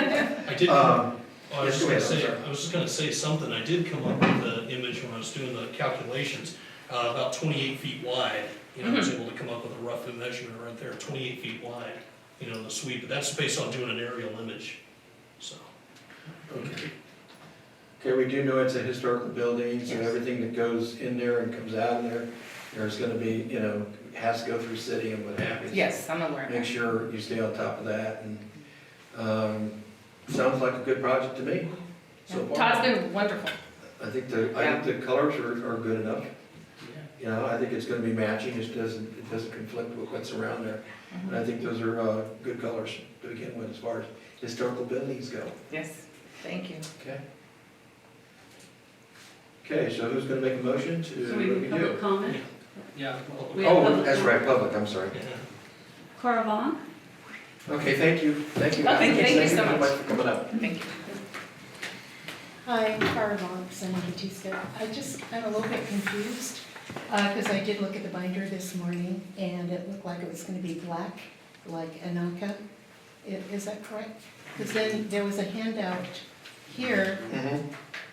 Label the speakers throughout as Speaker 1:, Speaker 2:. Speaker 1: did, oh,
Speaker 2: Um,
Speaker 1: I was just
Speaker 2: yes, go
Speaker 1: gonna
Speaker 2: ahead, I'm
Speaker 1: say,
Speaker 2: sorry.
Speaker 1: I was just gonna say something, I did come up with the image when I was doing the calculations, uh, about twenty-eight feet wide, you know, I was
Speaker 3: Mm-hmm.
Speaker 1: able to come up with a rough measurement right there, twenty-eight feet wide, you know, the sweep, but that's based on doing an aerial image, so.
Speaker 2: okay. Okay, we do know it's a historical building, so
Speaker 4: Yes.
Speaker 2: everything that goes in there and comes out of there, there's gonna be, you know, has to go through city and what have you. So
Speaker 4: Yes, I'm aware of
Speaker 2: Make
Speaker 4: that.
Speaker 2: sure you stay on top of that, and, um, sounds like a good project to me so far.
Speaker 4: Todd's been wonderful.
Speaker 2: I think the, I think the colors are, are good enough. You know, I think it's gonna be matching, it doesn't, it doesn't conflict with what's around there.
Speaker 4: Mm-hmm.
Speaker 2: And I think those are, uh, good colors to begin with as far as historical buildings go.
Speaker 4: Yes, thank you.
Speaker 2: Okay. Okay, so who's gonna make a motion to,
Speaker 5: So
Speaker 2: what
Speaker 5: we
Speaker 2: do we
Speaker 5: have public
Speaker 2: do?
Speaker 5: comment?
Speaker 1: Yeah.
Speaker 5: We have
Speaker 2: Oh,
Speaker 5: public
Speaker 2: that's
Speaker 5: comment.
Speaker 2: right, public, I'm sorry.
Speaker 5: Cora Vaughn?
Speaker 2: Okay, thank you, thank you.
Speaker 4: Oh, thank you. Thank you so much.
Speaker 2: for coming up.
Speaker 4: Thank you.
Speaker 6: Hi, Cara Vaughn, Sunny Batista. I just, I'm a little bit confused, because I did look at the binder this morning, and it looked like it was going to be black, like Anaka. I- Is that correct? Because then there was a handout here,
Speaker 2: Mhm,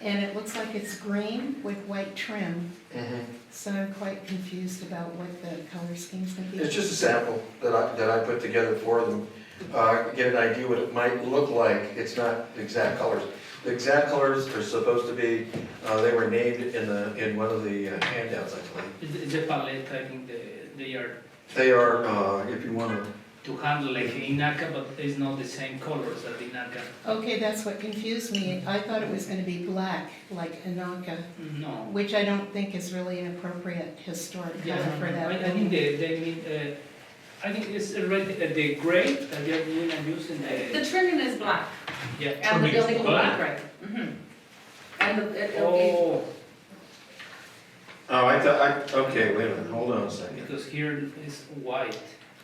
Speaker 6: and it looks like it's green with white trim,
Speaker 2: mhm.
Speaker 6: so I'm quite confused about what the color scheme's going to be.
Speaker 2: It's just a sample that I, that I put together for them, uh, get an idea what it might look like, it's not the exact colors. The exact colors are supposed to be, uh, they were named in the, in one of the uh, handouts, I believe.
Speaker 3: It's it's a palette, I think they, they are
Speaker 2: They are, uh, if you wanna,
Speaker 3: to handle like Inaka, but it's not the same colors as Inaka.
Speaker 6: Okay, that's what confused me. I thought it was going to be black, like Anaka.
Speaker 3: No.
Speaker 6: Which I don't think is really an appropriate historic
Speaker 3: Yeah,
Speaker 6: color
Speaker 3: no,
Speaker 6: for
Speaker 3: no,
Speaker 6: that.
Speaker 3: I, I think they, they mean, uh, I think it's already, uh, the gray that they're doing and using
Speaker 4: The
Speaker 3: the,
Speaker 4: trimming is black,
Speaker 3: yeah.
Speaker 4: and the
Speaker 1: Trimming is
Speaker 4: building will be
Speaker 3: black?
Speaker 4: gray. Mhm. And the, it'll be,
Speaker 3: Oh,
Speaker 2: oh, I thought, I, okay, wait a minute, hold on a second.
Speaker 3: because here is white.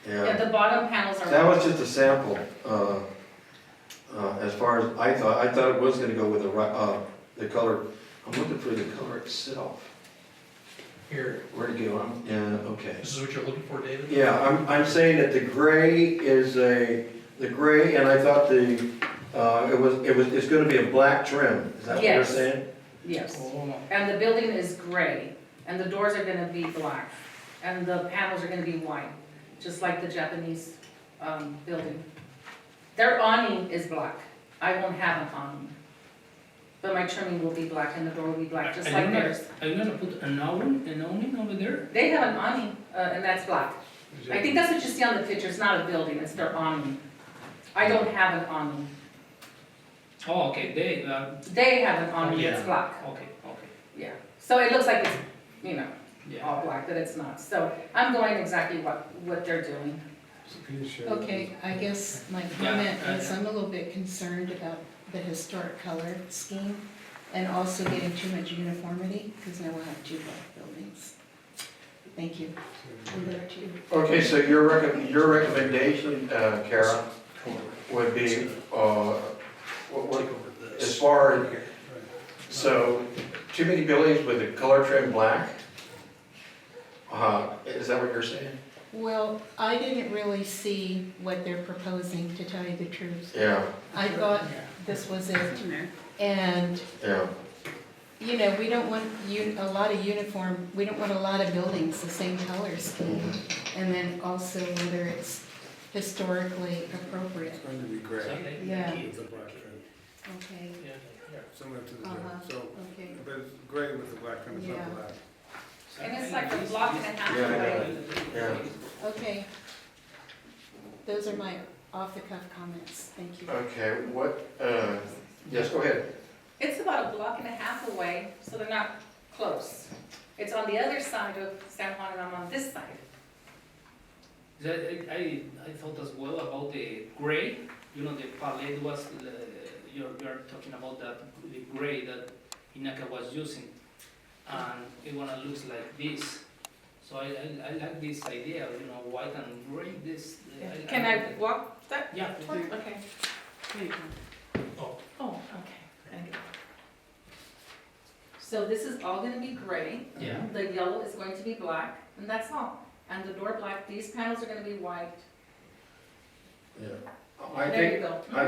Speaker 2: Yeah,
Speaker 4: yeah, the bottom panels are.
Speaker 2: Oh. that was just a sample, uh, uh, as far as, I thought, I thought it was gonna go with the, ri- uh, the color, I'm looking for the color itself.
Speaker 1: Here,
Speaker 2: Where'd it go? I'm- Yeah, okay.
Speaker 1: this is what you're looking for, David?
Speaker 2: Yeah, I'm, I'm saying that the gray is a, the gray, and I thought the, uh, it was, it was, it's gonna be a black trim, is that what you're
Speaker 4: Yes.
Speaker 2: saying?
Speaker 4: Yes.
Speaker 3: Oh,
Speaker 4: And the building is gray, and the doors are gonna be black, and the panels are gonna be white, just like the Japanese, um, building. Their awning is black, I won't have an awning. But my trimming will be black and the door will be black, just
Speaker 3: I- I
Speaker 4: like
Speaker 3: don't know.
Speaker 4: theirs.
Speaker 3: are you gonna put an awning, an awning over there?
Speaker 4: They have an awning, uh, and that's black. I think that's what you see on the picture, it's not a building, it's their awning. I don't have an awning,
Speaker 3: Oh, okay, they, uh,
Speaker 4: they have an awning, it's
Speaker 3: Yeah.
Speaker 4: black,
Speaker 3: okay, okay,
Speaker 4: yeah. So it looks like it's, you know,
Speaker 3: yeah.
Speaker 4: all black, but it's not. So I'm going exactly what, what they're doing.
Speaker 6: Okay, I guess my comment is I'm a little bit concerned about the historic color scheme and also getting too much uniformity, because now we'll have two black buildings. Thank you. And there are two.
Speaker 2: Okay, so your recom, your recommendation, uh, Kara, would be, uh, what,
Speaker 1: Take
Speaker 2: what,
Speaker 1: over
Speaker 2: as
Speaker 1: this.
Speaker 2: far, as so, too many buildings with the color trim black? Uh, is that what you're saying?
Speaker 6: Well, I didn't really see what they're proposing, to tell you the truth.
Speaker 2: Yeah,
Speaker 6: I thought this was it, and
Speaker 2: yeah,
Speaker 6: You know, we don't want u- a lot of uniform, we don't want a lot of buildings the same color scheme. And then also whether it's historically appropriate.
Speaker 7: It's going to be
Speaker 4: Oh.
Speaker 7: great.
Speaker 3: Okay.
Speaker 6: Yeah.
Speaker 7: It's a black trim,
Speaker 6: Okay,
Speaker 3: Yeah.
Speaker 7: similar to the,
Speaker 6: Uh-huh.
Speaker 7: gray. so,
Speaker 6: okay.
Speaker 7: but it's gray with the black trim, it's
Speaker 6: Yeah.
Speaker 7: not black.
Speaker 4: And it's like a block and a half
Speaker 2: Yeah, I
Speaker 4: away.
Speaker 2: know. yeah.
Speaker 6: Okay. Those are my off-the-cuff comments, thank you.
Speaker 2: Okay, what, uh, yes, go ahead.
Speaker 4: It's about a block and a half away, so they're not close. It's on the other side of San Juan and I'm on this side.
Speaker 3: Yeah, I, I, I thought as well about the gray, you know, the palette was, uh, you're, you're talking about that, the gray that Inaka was using. And it wanna looks like this, so I, I, I like this idea, you know, white and gray, this. uh, I-
Speaker 4: Can I walk that?
Speaker 3: Yeah.
Speaker 4: part? Okay. Here you go.
Speaker 1: Oh.
Speaker 4: Oh, okay. Thank you. So this is all gonna be gray.
Speaker 3: Yeah,
Speaker 4: The yellow is going to be black, and that's all. And the door black, these panels are gonna be white.
Speaker 2: Yeah. I
Speaker 4: There
Speaker 2: think,
Speaker 4: you go.